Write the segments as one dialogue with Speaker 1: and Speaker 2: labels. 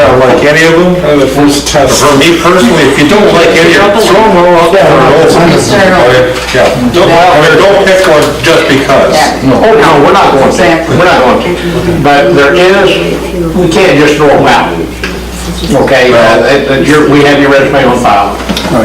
Speaker 1: like any of them,
Speaker 2: First test.
Speaker 1: for me personally, if you don't like any of them, throw them all out there. Yeah, don't, I mean, don't pick one just because.
Speaker 3: No.
Speaker 4: Oh, no, we're not going there, we're not going there. But there is, we can't just throw them out. Okay, uh, it- it- your- we have your resume on file.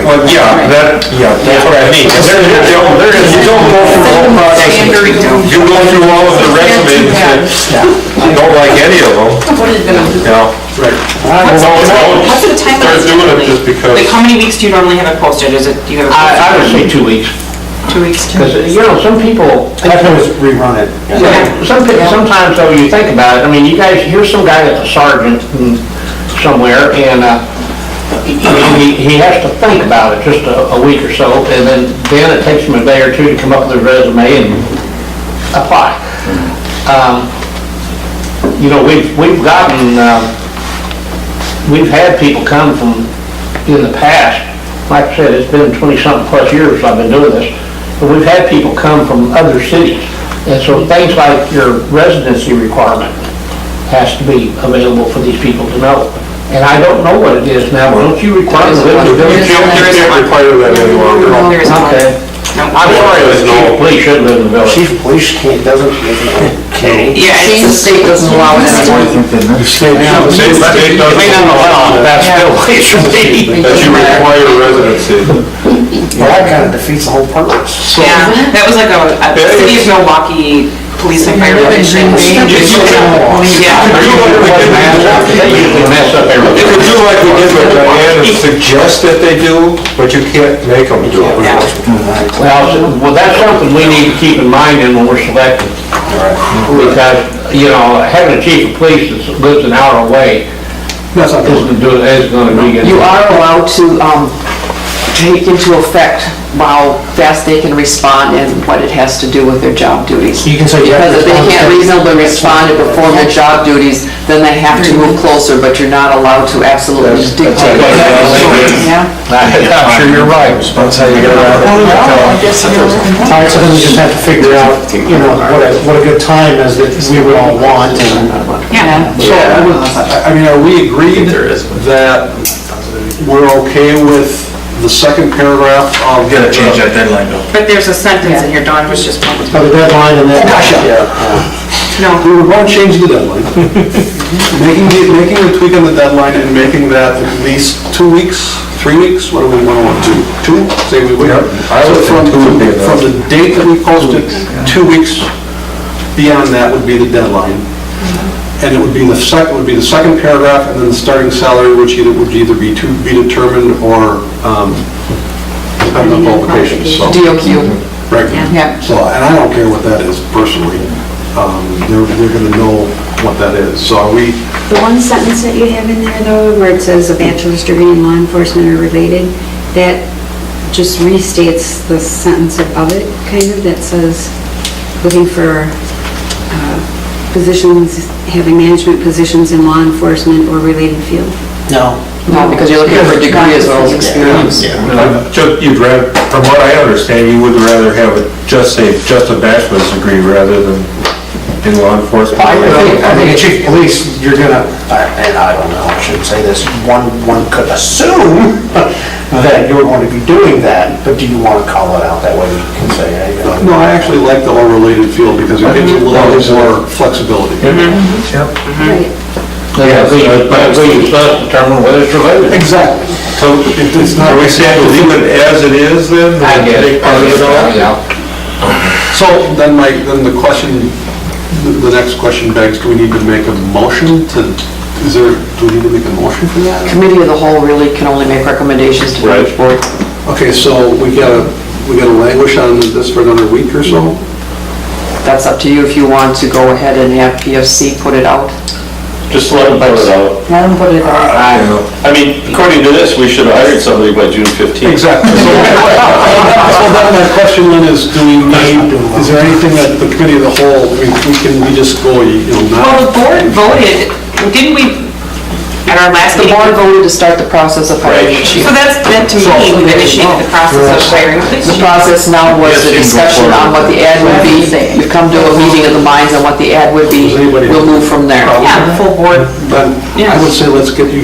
Speaker 1: Well, yeah, that, yeah, that's what I mean. There- there- there is- You don't go through all process, you go through all of the resumes and you don't like any of them,
Speaker 5: What is gonna,
Speaker 1: you know?
Speaker 5: what's,
Speaker 1: Well,
Speaker 5: the-
Speaker 1: no,
Speaker 5: what's the time
Speaker 1: they're
Speaker 5: of this
Speaker 1: doing it
Speaker 5: normally?
Speaker 1: just because-
Speaker 5: Like, how many weeks do you normally have it posted? Is it, do you have it
Speaker 4: I,
Speaker 5: posted
Speaker 4: I would say two weeks,
Speaker 5: two weeks?
Speaker 4: because, you know, some people,
Speaker 3: I always rerun it.
Speaker 4: Yeah, some, sometimes though, you think about it, I mean, you guys, here's some guy that's a sergeant and somewhere, and, uh, he, he- he has to think about it just a, a week or so, and then, then it takes him a day or two to come up with a resume and apply. Um, You know, we've, we've gotten, um, we've had people come from, in the past, like I said, it's been twenty-something plus years I've been doing this, but we've had people come from other cities. And so things like your residency requirement has to be available for these people to know. And I don't know what it is now, but don't you require the
Speaker 1: You
Speaker 4: village?
Speaker 1: can't, you can't require that any longer.
Speaker 5: There is one.
Speaker 4: Okay.
Speaker 5: No.
Speaker 4: I'm sorry, the chief of police should live in the village.
Speaker 3: Chief of police can't, doesn't, can't.
Speaker 5: Yeah, it's the state doesn't allow it anymore.
Speaker 1: State- state
Speaker 4: They may not
Speaker 1: doesn't-
Speaker 4: allow it, that's still, it should be.
Speaker 1: That you require residency.
Speaker 3: Well, that kind of defeats the whole purpose.
Speaker 5: Yeah, that was like a, a
Speaker 1: Yeah,
Speaker 5: city
Speaker 1: it's-
Speaker 5: of Milwaukee police and fire commission. Yeah.
Speaker 1: Are you looking to get mad?
Speaker 4: They usually mess up
Speaker 1: You
Speaker 4: everything.
Speaker 1: could do like we did with Diane and suggest that they do, but you can't make them do it.
Speaker 5: Yeah.
Speaker 4: Well, so- well, that's something we need to keep in mind then when we're selecting. Because, you know, having a chief of police that lives an hour away
Speaker 3: That's not
Speaker 4: isn't doing, isn't gonna be good.
Speaker 6: You are allowed to um, take into effect how fast they can respond and what it has to do with their job duties.
Speaker 3: You can say you have
Speaker 6: Because if they
Speaker 3: to
Speaker 6: can't
Speaker 3: respond to-
Speaker 6: reasonably respond and perform their job duties, then they have to move closer, but you're not allowed to absolutely dictate. Yeah.
Speaker 4: I'm sure you're right.
Speaker 3: That's how you get around it. All right, so then we just have to figure out, you know, what a, what a good time is that we would all want and.
Speaker 5: Yeah.
Speaker 2: So, I would- I I mean, are we agreed that we're okay with the second paragraph of?
Speaker 7: Gotta change that deadline though.
Speaker 5: But there's a sentence in here, Dawn was just pointing.
Speaker 3: But the deadline and then.
Speaker 5: No.
Speaker 2: We were going to change the deadline. Making the, making the tweak on the deadline and making that at least two weeks, three weeks, what do we want to do? Two, say we wait.
Speaker 1: Yeah, I would
Speaker 2: So
Speaker 1: think
Speaker 2: from-
Speaker 1: two would be enough.
Speaker 2: From the date that we posted, two weeks beyond that would be the deadline. And it would be the second, would be the second paragraph and then the starting salary, which either would either be to be determined or um, depending on qualifications, so.
Speaker 6: DOQ.
Speaker 2: Right.
Speaker 6: Yeah.
Speaker 2: So, and I don't care what that is personally. Um, They're, they're gonna know what that is. So are we,
Speaker 8: The one sentence that you have in there though, where it says a bachelor's degree in law enforcement are related, that just restates the sentence above it, kind of, that says, looking for uh, positions, having management positions in law enforcement or related field.
Speaker 3: No.
Speaker 6: No, because you're looking for a degree as well as experience.
Speaker 1: Just, Uh, you'd rather, from what I understand, you would rather have it just say, just a bachelor's degree rather than in law enforcement.
Speaker 3: I think, I think a chief of police, you're gonna, and I don't know, I shouldn't say this, one, one could assume that you're going to be doing that, but do you want to call it out that way? You can say, hey, you
Speaker 2: no,
Speaker 3: know.
Speaker 2: I actually like the all related field because it gives a little bit more flexibility.
Speaker 8: Right.
Speaker 4: Yeah, we, but we must determine whether it's related.
Speaker 2: Exactly.
Speaker 1: So, are we saying leave it as it is then?
Speaker 4: I guess.
Speaker 1: Take part of it all?
Speaker 4: Yeah.
Speaker 2: So then my, then the question, the- the next question begs, do we need to make a motion to, is there, do we need to make a motion for that?
Speaker 6: Committee of the whole really can only make recommendations to the board.
Speaker 2: Okay, so we gotta, we gotta languish on this for another week or so?
Speaker 6: That's up to you if you want to go ahead and have PFC put it out.
Speaker 9: Just let them put it out.
Speaker 6: Let them put it out.
Speaker 1: I don't know.
Speaker 9: I mean, according to this, we should have hired somebody by June 15th.
Speaker 2: Exactly. So so then my question then is, do we need, is there anything that the committee of the whole, we we can, we just go, you know,
Speaker 5: Well, the
Speaker 2: not?
Speaker 5: board voted, didn't we, at our last
Speaker 6: The
Speaker 5: meeting?
Speaker 6: board voted to start the process of hiring the chief.
Speaker 5: So that's, that to me, we initiated the process of hiring a police
Speaker 6: The
Speaker 5: chief.
Speaker 6: process now was the discussion on what the ad would be. We've come to a meeting of the minds on what the ad would be. We'll move from there.
Speaker 5: Yeah, the full board
Speaker 2: Then I would say let's get you